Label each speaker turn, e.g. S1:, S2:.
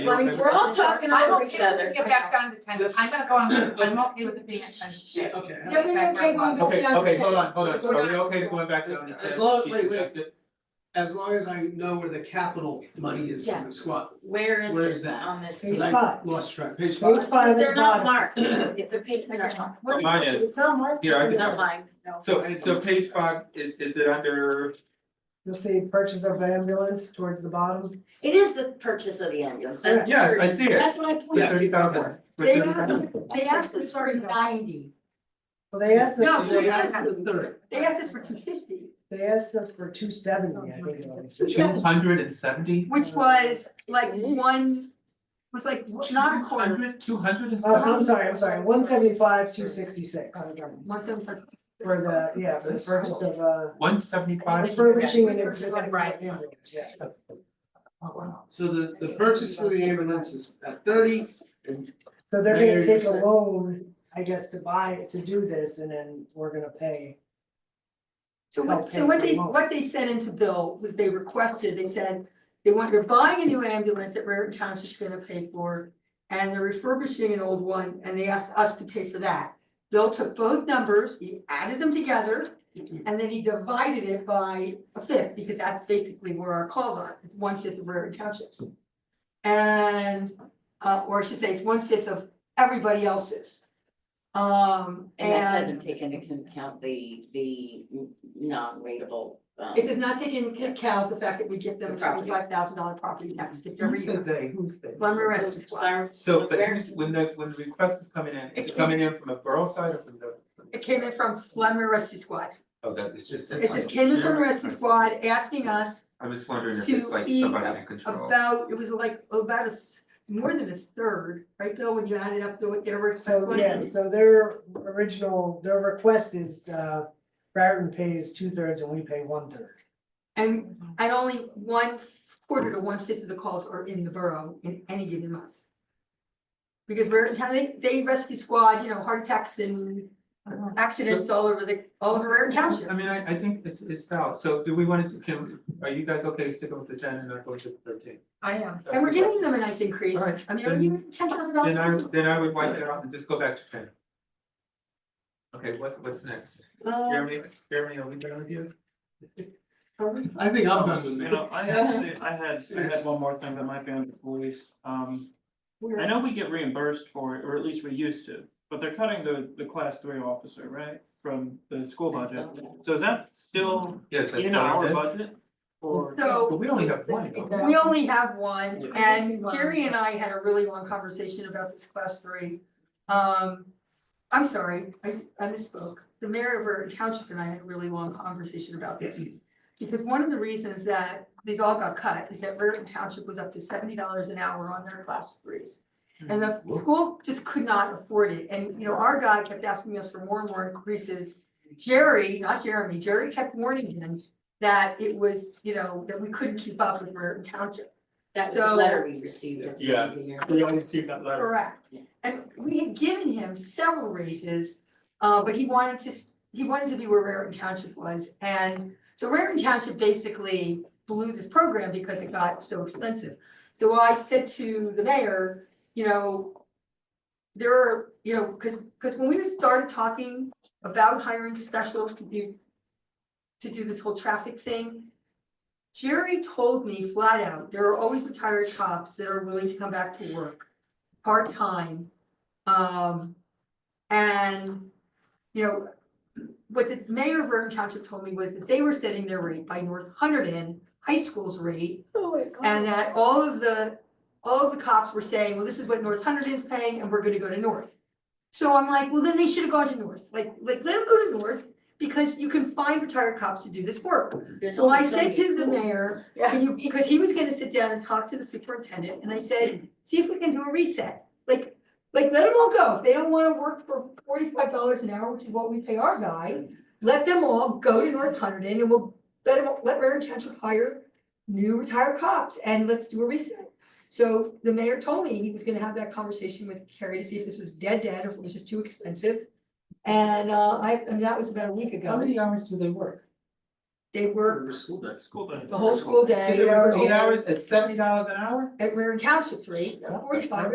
S1: Like, we're all talking
S2: I
S1: over
S2: will
S1: each
S2: get,
S1: other.
S2: get back down to ten,
S3: This-
S2: I'm gonna go on, I'm okay with it being at ten.
S3: Yeah, okay.
S1: No, no, no, okay, we'll go
S4: Okay,
S1: down to
S4: okay,
S1: ten.
S4: hold on, hold on,
S3: So we're
S4: are we
S3: not-
S4: okay going back down to ten?
S3: As long-
S4: She
S3: wait, wait.
S4: suggested-
S3: As long as I know where the capital money is
S1: Yeah.
S3: from the squad,
S1: Where
S3: Where
S1: is
S3: is
S1: it
S3: that?
S1: on this?
S3: because I
S5: five.
S3: lost track,
S5: Page
S3: page five.
S5: five at the
S1: They're not
S5: bottom.
S1: marked, the papers are not,
S4: Well, Mine is,
S5: It's not marked.
S4: Here, I can-
S1: not mine, no.
S4: so, so page five, is, is it under,
S5: You'll see purchase of ambulance towards the bottom.
S1: It is the purchase of the ambulance, that's.
S4: yes, I see it,
S1: That's what I
S4: with
S1: pointed
S4: thirty
S1: out.
S4: thousand.
S6: Oh, They asked, they asked us for ninety,
S5: Well, they asked
S3: No,
S5: us,
S3: they
S5: for-
S3: asked the third.
S6: they asked us for two fifty,
S5: they asked us for two seventy, I think. it was.
S4: Two hundred and seventy?
S6: which was like one, was like not a quarter.
S4: Two hundred and
S5: Oh, I'm
S4: seventy?
S5: sorry, I'm sorry, one seventy-five, two
S6: Um,
S5: sixty-six
S6: One seven six.
S5: for the, yeah, for the purchase of, uh,
S4: One seventy-five?
S5: refurbishing an existing
S2: Right.
S5: ambulance, yeah.
S3: So the, the purchase for the ambulance is at thirty,
S5: So they're gonna
S3: Mayor,
S5: take a
S3: you're-
S5: loan, I guess, to buy, to do this, and then we're gonna pay.
S6: So what, so what they, what they sent into Bill, what they requested, they said, they want, you're buying a new ambulance that Raritan Township's gonna pay for. And they're refurbishing an old one, and they asked us to pay for that. Bill took both numbers, he added them together.
S1: Mm-hmm.
S6: And then he divided it by a fifth, because that's basically where our calls are, it's one fifth of Raritan Township's. And, uh, or I should say, it's one fifth of everybody else's. Um,
S1: And that
S6: and
S1: doesn't take into account the, the non-rateable, um.
S6: It does not take into account the fact that we give them
S1: The property.
S6: twenty-five thousand dollar property tax gift
S4: Who
S6: every year.
S4: said they, who said?
S6: Lumber rest is why.
S4: So, but who's, when the, when the request is coming in, is it coming in from the borough side or from the?
S6: It came in from Flemmer Rescue Squad.
S4: Oh, that, it's just.
S6: It just came in from Rescue Squad asking us
S4: I'm just wondering if
S6: to
S4: it's like
S6: eat
S4: somebody in control.
S6: about, it was like about a, th- more than a third, right, Bill, when you added up the, their request
S5: So,
S6: was?
S5: yeah, so their original, their request is, uh, Raritan pays two thirds and we pay one third.
S6: And, and only one quarter to one fifth of the calls are in the borough in any given month. Because we're in town, they, they rescue squad, you know, heart attacks and accidents all over the, all over Raritan Township.
S4: I mean, I, I think it's, it's valid, so do we want to, can, are you guys okay sticking with the ten and not going to thirteen?
S2: I am.
S6: And we're giving them a nice increase.
S4: All right,
S6: I mean, we're
S4: then-
S6: giving them ten thousand
S4: Then I,
S6: dollars.
S4: then I would wipe that off and just go back to ten. Okay, what, what's next? Jeremy, Jeremy, are we done with you?
S3: I think I'm done with
S7: You
S3: that.
S7: know, I actually, I had, I had one more thing that might be on the police, um, I know we get reimbursed for it, or at least we used to. But they're cutting the, the class three officer, right, from the school budget, so is that still
S4: Yes. I
S7: in
S4: thought
S7: our
S4: it is.
S7: budget? Or?
S4: But
S6: So
S4: we only have one, though.
S6: we only have one
S3: Yeah.
S6: and Jerry and I had a really long conversation about this class three. Um, I'm sorry, I, I misspoke. The mayor of Raritan Township and I had a really long conversation about this. Because one of the reasons that these all got cut is that Raritan Township was up to seventy dollars an hour on their class threes. And the school just could not afford it, and you know, our guy kept asking us for more and more increases. Jerry, not Jeremy, Jerry kept warning him that it was, you know, that we couldn't keep up with Raritan Township,
S1: That was the
S6: so-
S1: letter we received at the end of the year.
S4: We only received that letter.
S6: correct? And we had given him several raises, uh, but he wanted to, s- he wanted to be where Raritan Township was, and so Raritan Township basically blew this program because it got so expensive. So I said to the mayor, you know, there are, you know, because, because when we started talking about hiring specials to do, to do this whole traffic thing, Jerry told me flat out, there are always retired cops that are willing to come back to work, part-time. Um, and, you know, what the mayor of Vernon Township told me was that they were setting their rate by North Hunterdon High School's rate, and that all of the, all of the cops were saying, well, this is what North Hunterdon is paying and we're gonna go to North. So I'm like, well, then they should have gone to North, like, like, let them go to North because you can find retired cops to do this work.
S1: There's
S6: So I
S1: only so
S6: said
S1: many
S6: to the
S1: schools.
S6: mayor, can you, because he was gonna sit down and talk to the superintendent and I said, see if we can do a reset. Like, like, let them all go. If they don't wanna work for forty-five dollars an hour, which is what we pay our guy, let them all go to North Hunterdon and we'll let them, let Raritan Township hire new retired cops and let's do a reset. So the mayor told me he was gonna have that conversation with Carrie to see if this was dead dead, if it was just too expensive. And uh, I, and that was about a week
S4: How
S6: ago.
S4: many hours do they work?
S6: They work
S3: school day.
S8: School day.
S6: the whole school
S7: So
S6: day.
S7: there
S6: you know,
S7: were eight hours at seventy dollars an hour?
S6: At Wareham Township's rate, forty-five